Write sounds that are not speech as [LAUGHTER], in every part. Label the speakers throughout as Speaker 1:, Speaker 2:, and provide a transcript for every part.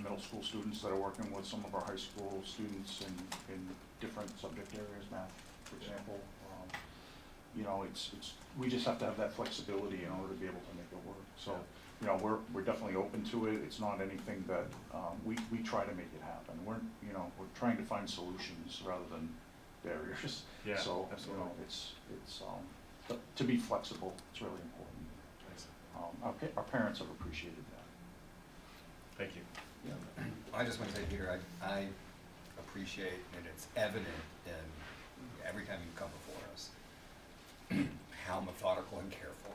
Speaker 1: middle school students that are working with some of our high school students in, in different subject areas, math, for example. Um, You know, it's, it's, we just have to have that flexibility in order to be able to make it work. So, you know, we're, we're definitely open to it. It's not anything that, um, we, we try to make it happen. We're, you know, we're trying to find solutions rather than barriers.
Speaker 2: [LAUGHS] Yeah,
Speaker 1: So, you
Speaker 2: absolutely.
Speaker 1: know, it's, it's, um, but to be flexible, it's really important. Um, our, pa- our parents have appreciated that.
Speaker 2: Thank you.
Speaker 3: Yeah, I just want to say, Peter, I, I appreciate, and it's evident in every time you come before us, [CLEARS THROAT] how methodical and careful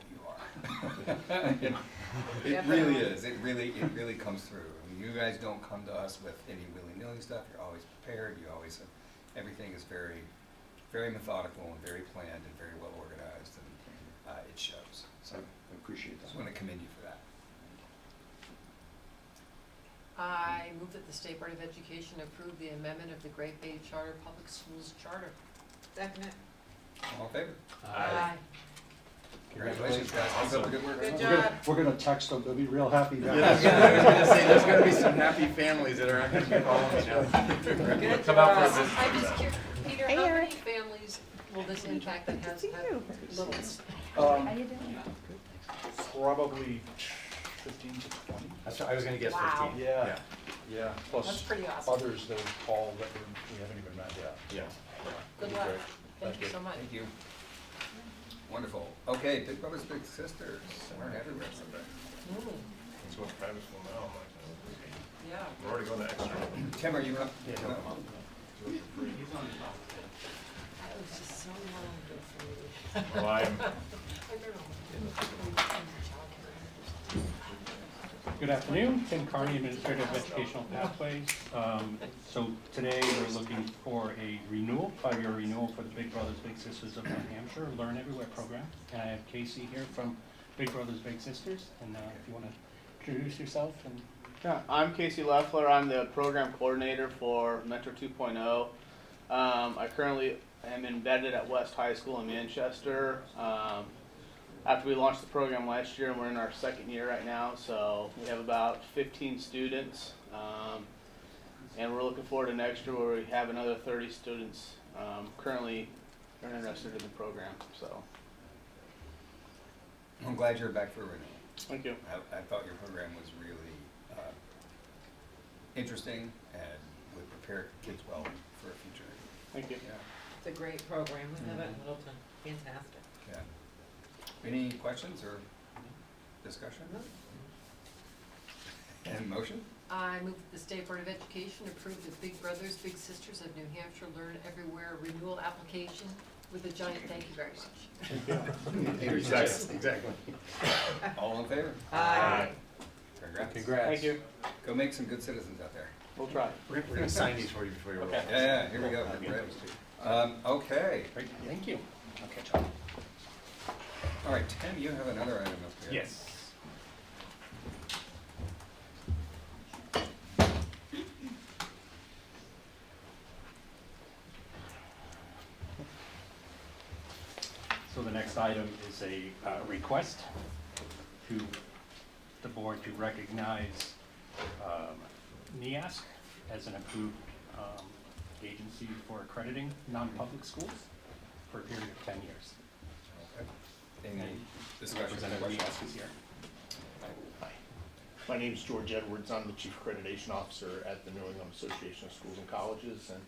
Speaker 3: you are. It really is, it really, it really comes through. I mean, You guys don't come to us with any willy-nilly stuff, you're always prepared, you always, everything is very, very methodical and very planned and very well organized, and uh, it shows. So,
Speaker 1: So I appreciate
Speaker 3: just want
Speaker 1: that.
Speaker 3: to commend you for that.
Speaker 4: I move that the State Board of Education approve the amendment of the Great Bay Charter Public Schools Charter.
Speaker 5: Second it.
Speaker 3: All in favor?
Speaker 4: Uh,
Speaker 3: Congratulations, guys. Keep up the good work.
Speaker 5: Good
Speaker 1: We're gonna,
Speaker 5: job.
Speaker 1: we're gonna text them, they'll be real happy. that-
Speaker 2: I was gonna say, there's gonna be some happy families that are not gonna be following now.
Speaker 4: Good
Speaker 2: [LAUGHS] Come out for a
Speaker 4: job.
Speaker 2: visit.
Speaker 4: I'm just curious, Peter,
Speaker 6: Hey,
Speaker 4: how many
Speaker 6: Eric.
Speaker 4: families will this impact that has
Speaker 6: Good to see
Speaker 4: had
Speaker 6: you.
Speaker 4: littles?
Speaker 6: How
Speaker 1: Um,
Speaker 6: you doing?
Speaker 1: probably fifteen to twenty.
Speaker 2: That's right, I was gonna guess
Speaker 4: Wow.
Speaker 2: fifteen.
Speaker 1: Yeah, yeah,
Speaker 4: That's
Speaker 1: plus
Speaker 4: pretty awesome.
Speaker 1: others that we've called that we- we haven't even met yet.
Speaker 2: Yeah.
Speaker 4: Good luck.
Speaker 2: great.
Speaker 4: Thank
Speaker 2: Thank
Speaker 4: you
Speaker 2: you.
Speaker 4: so much.
Speaker 3: Thank you. Wonderful. Okay, Big Brothers Big Sisters, we're everywhere.
Speaker 4: Mm,
Speaker 2: Let's go to private school
Speaker 1: oh
Speaker 2: now, I'm like,
Speaker 4: Yeah.
Speaker 2: we're already going to extra.
Speaker 3: Tim, are you up?
Speaker 4: That was just so long ago for me.
Speaker 2: Well, I'm,
Speaker 4: [LAUGHS] I remember when I was in childcare.
Speaker 7: Good afternoon, Tim Carney, Administrator of Educational Pathways. Um, So today, we're looking for a renewal, five-year renewal for the Big Brothers Big Sisters of New Hampshire Learn Everywhere program. And I have Casey here from Big Brothers Big Sisters, and uh, if you want to introduce yourself and
Speaker 8: Yeah, I'm Casey Leffler. I'm the program coordinator for Metro 2.0. Um, I currently am embedded at West High School in Manchester. Um, after we launched the program last year, and we're in our second year right now, so we have about 15 students, um, and we're looking forward to next year where we have another 30 students um, currently are interested in the program. So,
Speaker 3: I'm glad you're back for renewal.
Speaker 8: thank you.
Speaker 3: I, I thought your program was really, uh, interesting and would prepare kids well for a future.
Speaker 8: Thank you.
Speaker 3: Yeah,
Speaker 5: It's a great program, we have it in Littleton, fantastic.
Speaker 3: yeah. Any questions or discussion? And motion?
Speaker 4: I move that the State Board of Education approve the Big Brothers Big Sisters of New Hampshire Learn Everywhere renewal application with a giant thank you very much.
Speaker 2: exactly, exactly.
Speaker 3: All in favor?
Speaker 2: Aye.
Speaker 3: Congrats.
Speaker 8: Thank you.
Speaker 3: Go make some good citizens out there.
Speaker 8: We'll try.
Speaker 2: We're gonna- we're gonna sign these for you before you roll.
Speaker 8: Okay.
Speaker 3: Yeah, yeah, here we go. We're ready. Um, okay.
Speaker 7: thank you. Okay.
Speaker 3: All right, Tim, you have another item up here.
Speaker 7: Yes. So the next item is a uh, request to the board to recognize um, NEASC as an approved um, agency for accrediting non-public schools for a period of 10 years.
Speaker 3: Any
Speaker 7: And
Speaker 3: discussion?
Speaker 7: Representative
Speaker 3: questions?
Speaker 7: NEASC is here.
Speaker 9: Hi, my name is George Edwards. I'm the Chief Accreditation Officer at the New England Association of Schools and Colleges and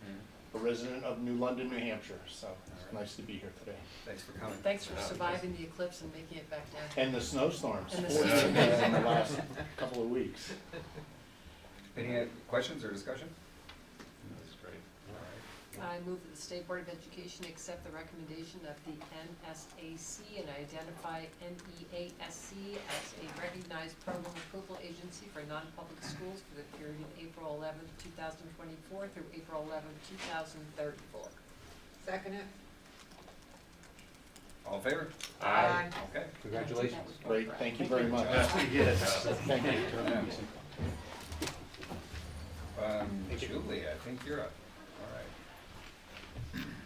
Speaker 9: a resident of New London, New Hampshire, so it's nice to be here today.
Speaker 3: Thanks for coming. Uh,
Speaker 4: Thanks for surviving the eclipse and making it back down.
Speaker 9: And the snowstorms,
Speaker 4: And the
Speaker 9: fortunately,
Speaker 4: snowstorms.
Speaker 9: [LAUGHS] in the last couple of weeks.
Speaker 3: Any uh, questions or discussion?
Speaker 2: That's great.
Speaker 3: All right.
Speaker 4: I move that the State Board of Education accept the recommendation of the NSAC and identify E NEASC as a recognized program approval agency for non-public schools for the period of April eleventh, two thousand twenty-four through April eleventh, two thousand thirty-four.
Speaker 5: Second it.
Speaker 3: All in favor?
Speaker 5: Aye.
Speaker 3: Okay.
Speaker 4: Congratulations.
Speaker 9: Great, thank you very much.
Speaker 2: Yes.
Speaker 9: Thank you.
Speaker 3: Um,
Speaker 9: Thank you.
Speaker 3: Julie, I think you're up. All right.